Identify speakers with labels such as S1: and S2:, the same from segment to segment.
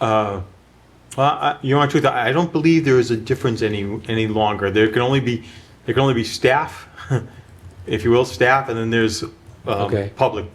S1: uh, well, I, Your Honor, truth, I I don't believe there is a difference any, any longer. There can only be, there can only be staff, if you will, staff, and then there's um,
S2: Okay.
S1: public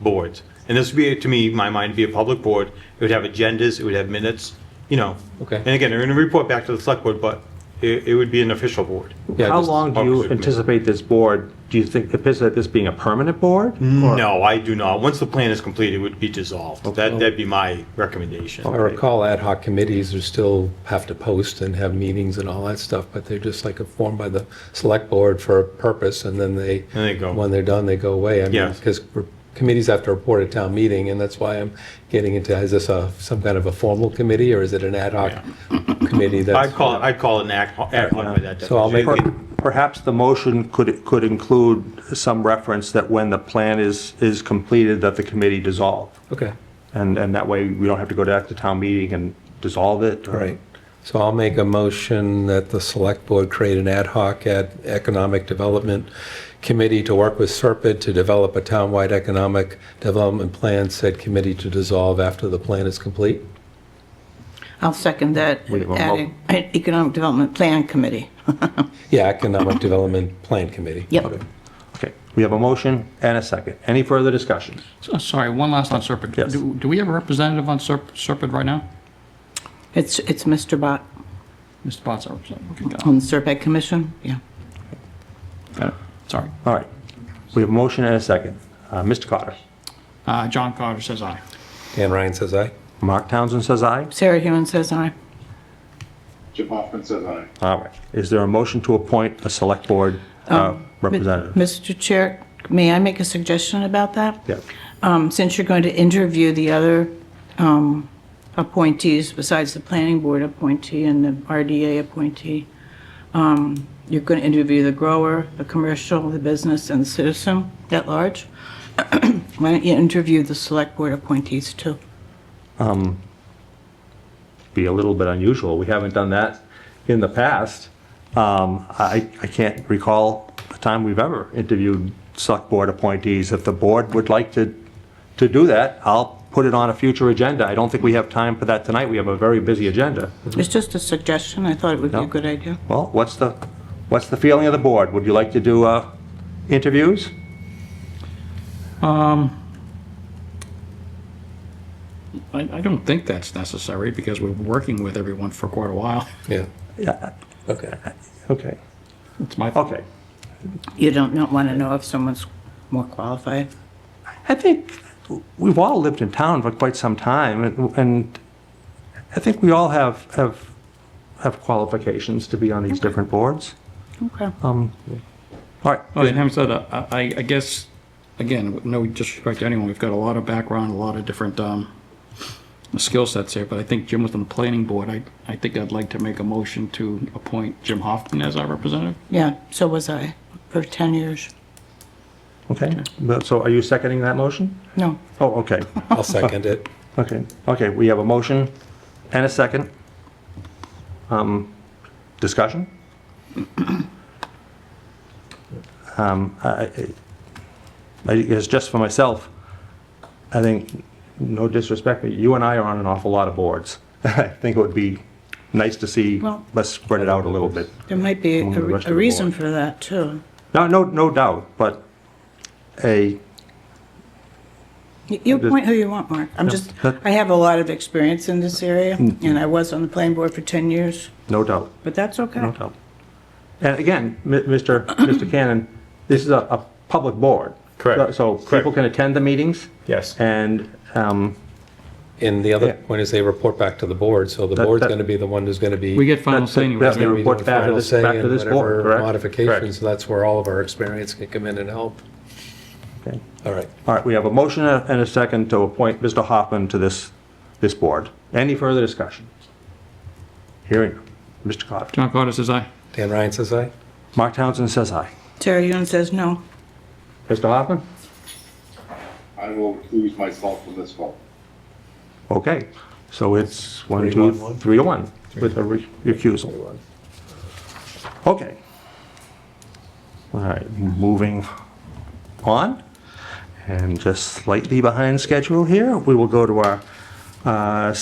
S1: boards. And this would be, to me, my mind, be a public board. It would have agendas, it would have minutes, you know.
S2: Okay.
S1: And again, they're going to report back to the select board, but it, it would be an official board.
S2: Yeah,
S3: How
S2: just-
S3: long do you
S1: Opposite me.
S3: anticipate this board, do you think, anticipate this being a permanent board? Or-
S1: No, I do not. Once the plan is complete, it would be dissolved. That, that'd be my recommendation.
S2: I recall ad hoc committees are still have to post and have meetings and all that stuff, but they're just like formed by the select board for a purpose, and then they.
S1: And they go.
S2: When they're done, they go away. I mean,
S1: Yes.
S2: because committees have to report at town meeting, and that's why I'm getting into, is this a, some kind of a formal committee, or is it an ad hoc committee that's?
S1: I'd call, it- I'd call it an act, act on by that.
S2: So I'll make-
S1: definition.
S3: Per- Perhaps the motion could, could include some reference that when the plan is, is completed, that the committee dissolve.
S2: Okay,
S3: And, and that way, we don't have to go back to town meeting and dissolve it.
S2: all right. So I'll make a motion that the select board create an ad hoc ad economic development committee to work with Serpide to develop a townwide economic development plan, said committee to dissolve after the plan is complete.
S4: I'll second that,
S3: We have a mo-
S4: adding an Economic Development Plan Committee.
S2: Yeah, economic development plan committee.
S4: Yep.
S3: Okay, we have a motion and a second. Any further discussion?
S5: So- Oh, Sorry, one last on Serpent.
S3: Yes.
S5: Do do we have a representative on Serp- Serpent right now?
S4: It's, it's Mr. Bott
S5: Mr. Potts, our representative. Okay, got it.
S4: on the Serpent Commission, yeah.
S3: Oh,
S5: Got it. Sorry.
S3: All right, we have a motion and a second. Uh, Mr. Cotter?
S5: Uh, John Carter says aye.
S2: Dan Ryan says aye.
S3: Mark Townsend says aye.
S4: Sarah Hewen says aye.
S6: Jim Hoffman says aye.
S3: All right, is there a motion to appoint a select board uh, representative?
S4: Mr. Chair, may I make a suggestion about that?
S3: Yeah.
S4: Um, Since you're going to interview the other um, appointees besides the Planning Board appointee and the RDA appointee, um, you're going to interview the grower, the commercial, the business, and the citizen at large. Why don't you interview the Select Board appointees too?
S3: Be a little bit unusual, we haven't done that in the past. Um, I I can't recall a time we've ever interviewed select board appointees. If the board would like to, to do that, I'll put it on a future agenda. I don't think we have time for that tonight, we have a very busy agenda.
S4: It's just a suggestion, I thought it would be a
S3: No.
S4: good idea.
S3: Well, what's the, what's the feeling of the board? Would you like to do uh, interviews?
S5: I I don't think that's necessary because we've been working with everyone for quite a while.
S2: Yeah.
S3: Yeah.
S2: Okay.
S3: Okay.
S5: It's my thought.
S3: Okay.
S4: You don't not want to know if someone's more qualified.
S3: I think we've all lived in town for quite some time, and- and I think we all have, have, have qualifications to be on these different boards.
S4: Okay.
S3: Um, All
S5: Oh, and
S3: right,
S5: having said that, I- I I guess, again, with no disrespect to anyone, we've got a lot of background, a lot of different um, skill sets here, but I think Jim was on the planning board. I I think I'd like to make a motion to appoint Jim Hoffman as our representative.
S4: Yeah, so was I, for 10 years.
S3: okay, But- so are you seconding that motion?
S4: No,
S3: Oh, okay,
S2: I'll second it.
S3: okay, okay, we have a motion and a second. Um, Discussion? Um, I, I- I guess just for myself, I think, no disrespect, but you and I are on an awful lot of boards. I think it would be nice to see,
S4: Well-
S3: let's spread it out a little bit.
S4: there might be a
S3: Among the rest of
S4: a
S3: the
S4: reason
S3: board.
S4: for that, too.
S3: No, no, no doubt, but a,
S4: Y- You
S3: just-
S4: appoint who you want, Mark. I'm just,
S3: that- Mm.
S4: I have a lot of experience in this area, and I was on the planning board for 10 years,
S3: no doubt,
S4: but that's
S3: no
S4: okay.
S3: doubt. And again, mi- Mr. Mr. Cannon, this is a, a public board.
S1: Correct.
S3: So people can attend the meetings
S1: Yes.
S3: and, um,
S2: And the other
S3: Yeah.
S2: point is they report back to the board, so the
S3: That-
S2: board's
S3: that-
S2: going to be the one who's going to be.
S5: We get final
S3: That's-
S5: say anyway.
S3: that's
S5: right?
S3: the-
S2: gonna be
S3: report
S2: doing
S3: back to
S2: final
S3: this-
S2: say
S3: back to
S2: and
S3: this board,
S2: whatever
S3: correct?
S2: Modifications,
S1: Correct.
S2: so that's where all of our experience can come in and help.
S3: okay.
S2: All right.
S3: All right, we have a motion and a second to appoint Mr. Hoffman to this, this board. Any further discussion? Hearing, none. Mr. Cotter.
S5: John Carter says aye.
S2: Dan Ryan says aye.
S3: Mark Townsend says aye.
S4: Terry Yuen says no.
S3: Mr. Hoffman?
S6: I will recuse myself from this vote.
S3: Okay, so it's one, two, three to one with a re- recusal. Okay. All right, moving on, and just slightly behind schedule here, we will go to our uh,